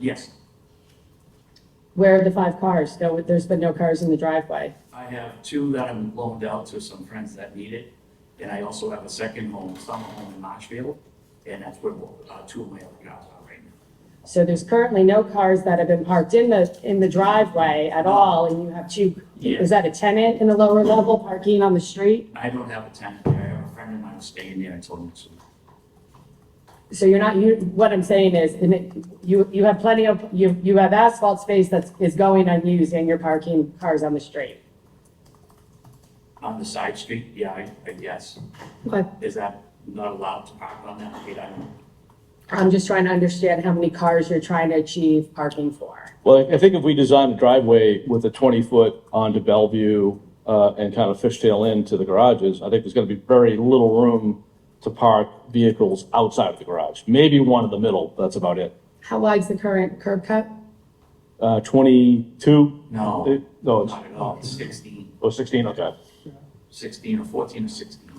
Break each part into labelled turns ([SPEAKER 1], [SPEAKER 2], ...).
[SPEAKER 1] Yes,
[SPEAKER 2] Where are the five cars? No, there's been no cars in the driveway.
[SPEAKER 1] I have two that I've loaned out to some friends that need it, and I also have a second home, summer home in Marshfield, and that's where uh, two of my other cars are right now.
[SPEAKER 2] So there's currently no cars that have been parked in the, in the driveway at all, and you have two,
[SPEAKER 1] Yeah.
[SPEAKER 2] is that a tenant in the lower level parking on the street?
[SPEAKER 1] I don't have a tenant there, I have a friend of mine who's staying there, I told him to.
[SPEAKER 2] So you're not, you, what I'm saying is, and it- you, you have plenty of, you, you have asphalt space that is going unused, and you're parking cars on the street.
[SPEAKER 1] On the side street, yeah, I, I guess,
[SPEAKER 2] Okay.
[SPEAKER 1] is that not allowed to park on that street? I don't,
[SPEAKER 2] I'm just trying to understand how many cars you're trying to achieve parking for.
[SPEAKER 3] Well, I think if we design a driveway with a 20-foot onto Bellevue uh, and kind of fishtail into the garages, I think there's going to be very little room to park vehicles outside of the garage. Maybe one in the middle, that's about it.
[SPEAKER 2] How wide's the current curb cut?
[SPEAKER 3] Uh, 22?
[SPEAKER 1] no,
[SPEAKER 3] It- No, it's,
[SPEAKER 1] not at all, It's sixteen,
[SPEAKER 3] oh, 16, okay.
[SPEAKER 1] sixteen or fourteen or sixteen.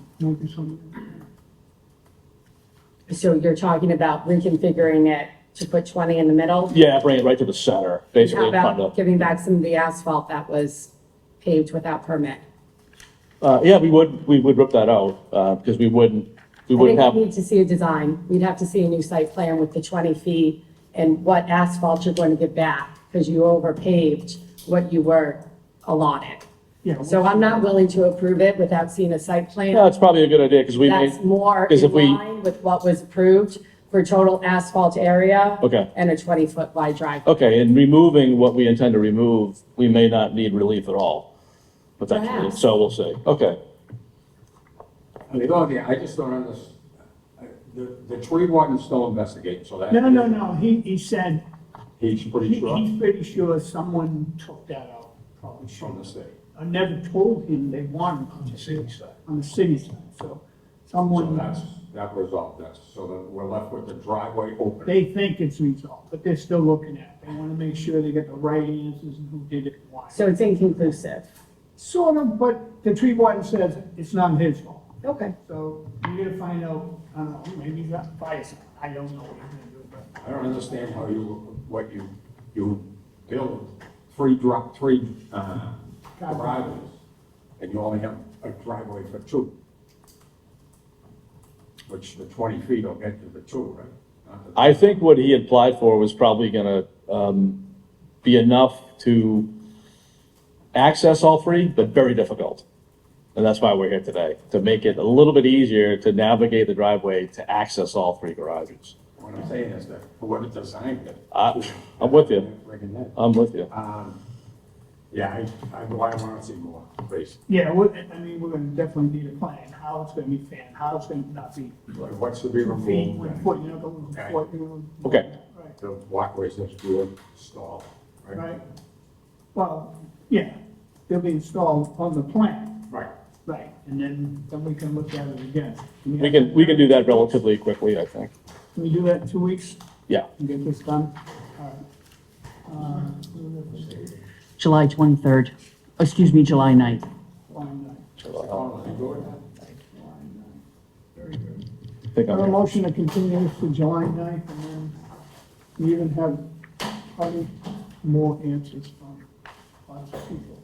[SPEAKER 2] So you're talking about reconfiguring it to put 20 in the middle?
[SPEAKER 3] Yeah, bring it right to the center, basically
[SPEAKER 2] How
[SPEAKER 3] in front
[SPEAKER 2] about
[SPEAKER 3] of.
[SPEAKER 2] giving back some of the asphalt that was paved without permit?
[SPEAKER 3] Uh, Yeah, we would, we would rip that out uh, because we wouldn't, we
[SPEAKER 2] I
[SPEAKER 3] wouldn't
[SPEAKER 2] think
[SPEAKER 3] have.
[SPEAKER 2] we need to see a design. We'd have to see a new site plan with the 20 feet and what asphalt you're going to give back because you overpaved what you were allotted. So I'm not willing to approve it without seeing a site
[SPEAKER 3] Yeah,
[SPEAKER 2] plan
[SPEAKER 3] it's probably a good idea because we may,
[SPEAKER 2] that's more
[SPEAKER 3] Because
[SPEAKER 2] in
[SPEAKER 3] if we-
[SPEAKER 2] line with what was approved for total asphalt area
[SPEAKER 3] Okay.
[SPEAKER 2] and a 20-foot wide driveway.
[SPEAKER 3] okay, in removing what we intend to remove, we may not need relief at all. Potentially,
[SPEAKER 2] Perhaps.
[SPEAKER 3] so we'll see. Okay.
[SPEAKER 4] I mean, the only thing, I just don't understand, the, the tree warden's still investigating, so that.
[SPEAKER 5] No, no, no, he, he said,
[SPEAKER 4] He's pretty
[SPEAKER 5] he-
[SPEAKER 4] sure
[SPEAKER 5] he's pretty sure someone took that out, probably
[SPEAKER 4] from the
[SPEAKER 5] shouldn't.
[SPEAKER 4] state.
[SPEAKER 5] I never told him they wanted it. On the city side. On the city side, so
[SPEAKER 4] So
[SPEAKER 5] someone,
[SPEAKER 4] that's, that resolved that, so that we're left with the driveway open.
[SPEAKER 5] they think it's resolved, but they're still looking at it. They wanna make sure they get the right answers and who did it and why.
[SPEAKER 2] So it's inconclusive.
[SPEAKER 5] Sort of, but the tree warden says it's not his fault.
[SPEAKER 2] Okay.
[SPEAKER 5] So you're gonna find out, I don't know, maybe he's got fire, someone. I don't know what he's gonna do, but.
[SPEAKER 4] I don't understand how you, what you, you build three drop, three, uh, driveways, and you only have a driveway for two. Which the twenty feet will get you the two, right? Not the-
[SPEAKER 3] I think what he applied for was probably gonna, um, be enough to access all three, but very difficult. And that's why we're here today, to make it a little bit easier to navigate the driveway to access all three garages.
[SPEAKER 4] What I'm saying is that whoever designed it.
[SPEAKER 3] I- I'm with you.
[SPEAKER 4] Friggin' that.
[SPEAKER 3] I'm with you.
[SPEAKER 4] Um, yeah, I, I, well, I wanna see more, please.
[SPEAKER 5] Yeah, we, I mean, we're gonna definitely need a plan, how it's gonna be fanned, how it's gonna not be
[SPEAKER 4] Like, What's to be
[SPEAKER 5] two feet, one
[SPEAKER 4] removed,
[SPEAKER 5] foot, you know, go one
[SPEAKER 4] Okay.
[SPEAKER 5] foot, you know.
[SPEAKER 3] Okay.
[SPEAKER 5] Right,
[SPEAKER 4] the walkways that's being installed, right?
[SPEAKER 5] right. Well, yeah, they'll be installed on the plan,
[SPEAKER 4] Right.
[SPEAKER 5] right, and then, then we can look at it again.
[SPEAKER 3] We can, we can do that relatively quickly, I think.
[SPEAKER 5] Can we do that in two weeks
[SPEAKER 3] Yeah.
[SPEAKER 5] and get this done? Uh, All right.
[SPEAKER 6] July 23rd, excuse me, July 9th.
[SPEAKER 5] Uh, line nine.
[SPEAKER 4] Oh, you go ahead.
[SPEAKER 3] I think I'm
[SPEAKER 5] Have a
[SPEAKER 3] here.
[SPEAKER 5] motion to continue this to July 9th, and then we even have probably more answers from lots of people.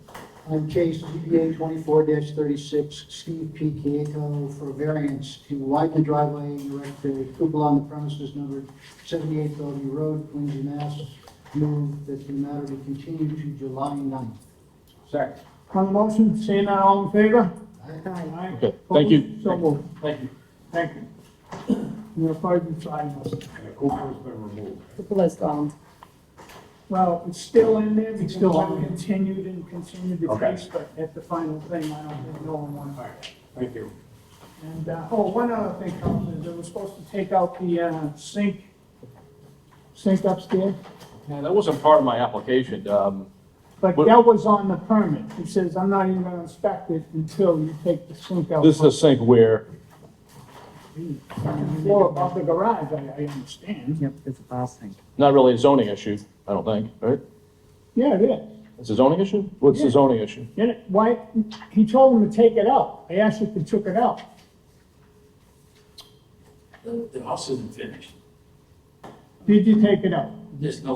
[SPEAKER 7] I'm Case DBA twenty-four thirty-six, Steve P. Kiyoko for variance to widen the driveway and erect a cupola on the premises numbered seventy-eight Bellevue Road, Quincy, Mass. Move that the matter be continued to July 9th.
[SPEAKER 4] Second.
[SPEAKER 5] On the motion, seeing none, all in favor? Aye.
[SPEAKER 3] Okay, thank you.
[SPEAKER 5] So moved.
[SPEAKER 1] Thank you.
[SPEAKER 5] Thank you. You're five and five, Mr.
[SPEAKER 4] And the cupola has been removed.
[SPEAKER 2] Let's go on.
[SPEAKER 5] Well, it's still in there, because
[SPEAKER 7] still
[SPEAKER 5] I
[SPEAKER 7] on.
[SPEAKER 5] continued and continued the
[SPEAKER 4] Okay.
[SPEAKER 5] case, but at the final thing, I don't think no one wanted.
[SPEAKER 4] All right, thank you.
[SPEAKER 5] And, uh, oh, one other thing, Councilor, they were supposed to take out the, uh, sink, sink upstairs,
[SPEAKER 3] Yeah, that wasn't part of my application. Um,
[SPEAKER 5] but
[SPEAKER 3] What-
[SPEAKER 5] that was on the permit. He says, I'm not even gonna inspect it until you take the sink out.
[SPEAKER 3] this is a sink where,
[SPEAKER 5] Floor above the garage, I, I understand.
[SPEAKER 6] Yep, it's a file thing.
[SPEAKER 3] not really a zoning issue, I don't think, right?
[SPEAKER 5] Yeah, it is.
[SPEAKER 3] It's a zoning issue? What's the zoning issue?
[SPEAKER 5] Then it- why, he told him to take it out. I asked if he took it out.
[SPEAKER 1] The, the house isn't finished,
[SPEAKER 5] Did you take it out?
[SPEAKER 1] there's no